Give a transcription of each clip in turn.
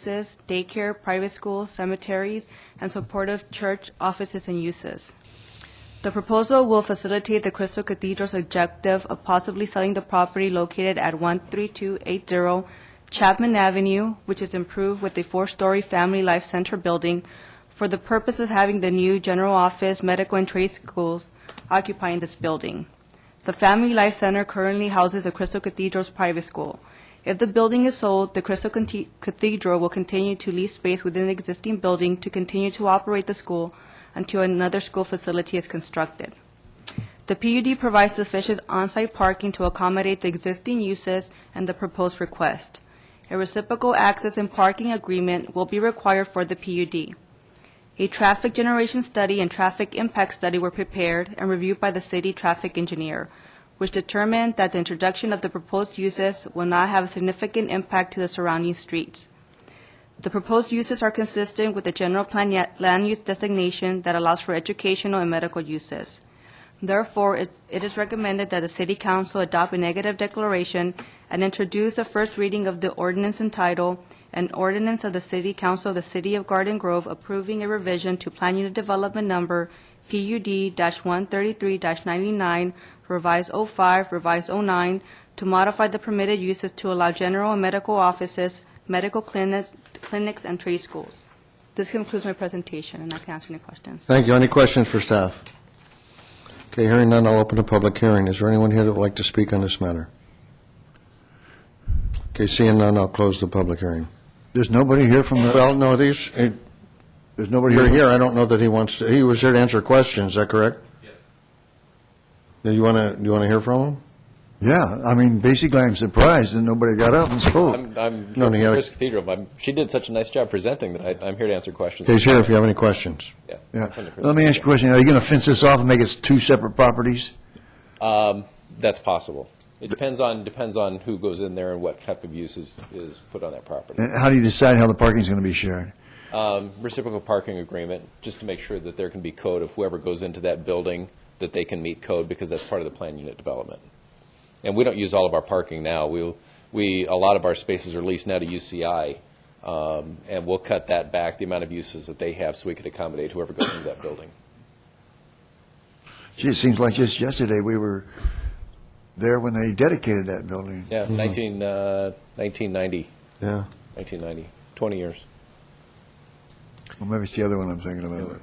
services, daycare, private schools, cemeteries, and supportive church offices and uses. The proposal will facilitate the Crystal Cathedral's objective of possibly selling the property located at 13280 Chapman Avenue, which is improved with a four-story Family Life Center building, for the purpose of having the new general office, medical, and trade schools occupying this building. The Family Life Center currently houses the Crystal Cathedral's private school. If the building is sold, the Crystal Conti- Cathedral will continue to lease space within the existing building to continue to operate the school until another school facility is constructed. The PUD provides sufficient on-site parking to accommodate the existing uses and the proposed request. A reciprocal access and parking agreement will be required for the PUD. A traffic generation study and traffic impact study were prepared and reviewed by the city traffic engineer, which determined that the introduction of the proposed uses will not have a significant impact to the surrounding streets. The proposed uses are consistent with the general plan ya- land use designation that allows for educational and medical uses. Therefore, it's- it is recommended that the City Council adopt a negative declaration and introduce the first reading of the ordinance entitled, "An Ordinance of the City Council of the City of Garden Grove Approving a Revision to Plan Unit Development Number PUD-133-99, Revised 05, Revised 09, to modify the permitted uses to allow general and medical offices, medical clinics, clinics, and trade schools." This concludes my presentation, and I can answer any questions. Thank you. Any questions for staff? Okay, hearing none, I'll open a public hearing. Is there anyone here that would like to speak on this matter? Okay, seeing none, I'll close the public hearing. There's nobody here from the, Well, no, these, eh, there's nobody you're here. here, I don't know that he wants to, he was here to answer questions, is that correct? Yes. Do you want to, do you want to hear from him? Yeah, I mean, basically, I'm surprised that nobody got up and spoke. I'm, I'm No, no, no, you gotta- Chris Cathedral. but I'm, she did such a nice job presenting that I, I'm here to answer questions. Okay, he's here if you have any questions. Yeah. Yeah. I'm here. Let me ask you a question. Are you going to fence this off and make it two separate properties? Um, that's possible. It depends on depends on who goes in there and what type of use is, is put on that property. And how do you decide how the parking's going to be shared? Um, reciprocal parking agreement, just to make sure that there can be code of whoever goes into that building that they can meet code because that's part of the plan unit development. And we don't use all of our parking now. We we a lot of our spaces are leased now to UCI, um, and we'll cut that back the amount of uses that they have so we can accommodate whoever goes into that building. Gee, it seems like just yesterday, we were there when they dedicated that building. Yeah, 19, uh, 1990, Yeah. 1990, 20 years. Well, maybe it's the other one I'm thinking about.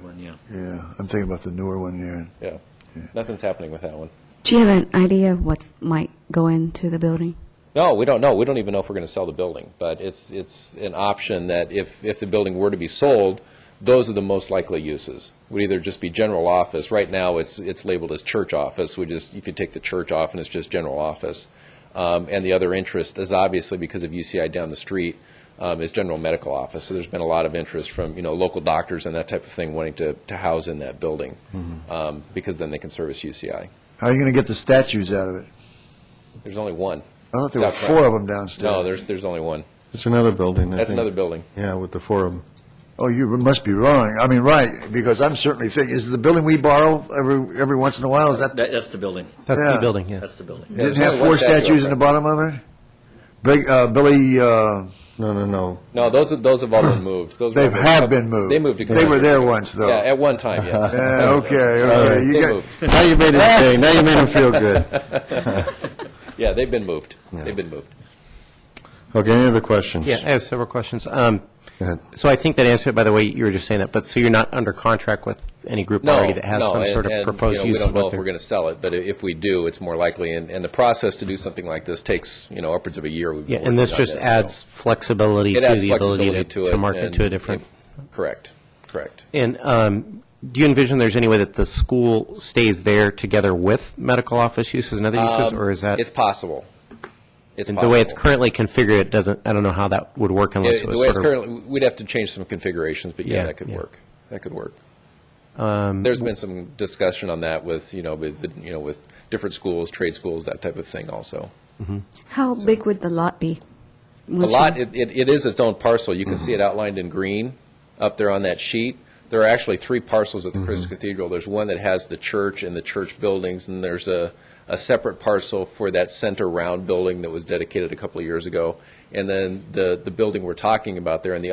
Yeah, I'm thinking about the newer one, yeah. Yeah. Nothing's happening with that one. Do you have an idea what's might go into the building? No, we don't know. We don't even know if we're going to sell the building, but it's, it's an option that if, if the building were to be sold, those are the most likely uses. Would either just be general office. Right now, it's, it's labeled as church office. We just, if you take the church off and it's just general office. Um, and the other interest is obviously because of UCI down the street, um, is general medical office. So there's been a lot of interest from, you know, local doctors and that type of thing wanting to, to house in that building. Mm-hmm. Um, because then they can service UCI. How are you going to get the statues out of it? There's only one. I thought there were Doc four Brown. of them downstairs. No, there's, there's only one. It's another building, I That's think. another building. Yeah, with the forum. Oh, you must be wrong. I mean, right, because I'm certainly thinking, is the building we borrow every, every once in a while, is that, That, that's the building. That's the Yeah. building, yeah. That's the building. didn't there's have only one four statue up statues in the front. bottom of it? Big, uh, Billy, uh, No, no, no. No, those are, those have all been moved. Those were- They have been moved. They moved. to They were there once, though. Yeah, at one time, yes. yeah, okay, They okay. You got- moved. Now you made it, okay, now you made him feel good. Yeah, they've been moved. They've been moved. Okay, any other questions? Yeah, I have several questions. Um, Go ahead. So I think that answered it by the way you were just saying that, but so you're not under contract with any group No, already that has no, some and- sort and, of proposed you know, use? We don't know if we're going to sell it, but i- if we do, it's more likely. And, and the process to do something like this takes, you know, upwards of a year. We've been Yeah, and this working on so. just adds flexibility to It adds the ability flexibility to to it. to market and to a different. if- Correct, correct. And um, do you envision there's any way that the school stays there together with medical office uses and other uses, Um, or is that? It's possible. It's and The way it's possible. currently configured, it doesn't, I don't know how that would work Yeah, unless it The was way sort it's of. currently, we'd have to change some configurations, but yeah, Yeah, that could yeah. work. That could work. um, There's been some discussion on that with, you know, with, the- you know, with different schools, trade schools, that type of thing also. How big would the lot be? A lot, it, it it is its own parcel. You can see it outlined in green up there on that sheet. There are actually three parcels at the Christ Cathedral. There's one that has the church and the church buildings, and there's a, a separate parcel for that center round building that was dedicated a couple of years ago. And then the, the building we're talking about there in the upper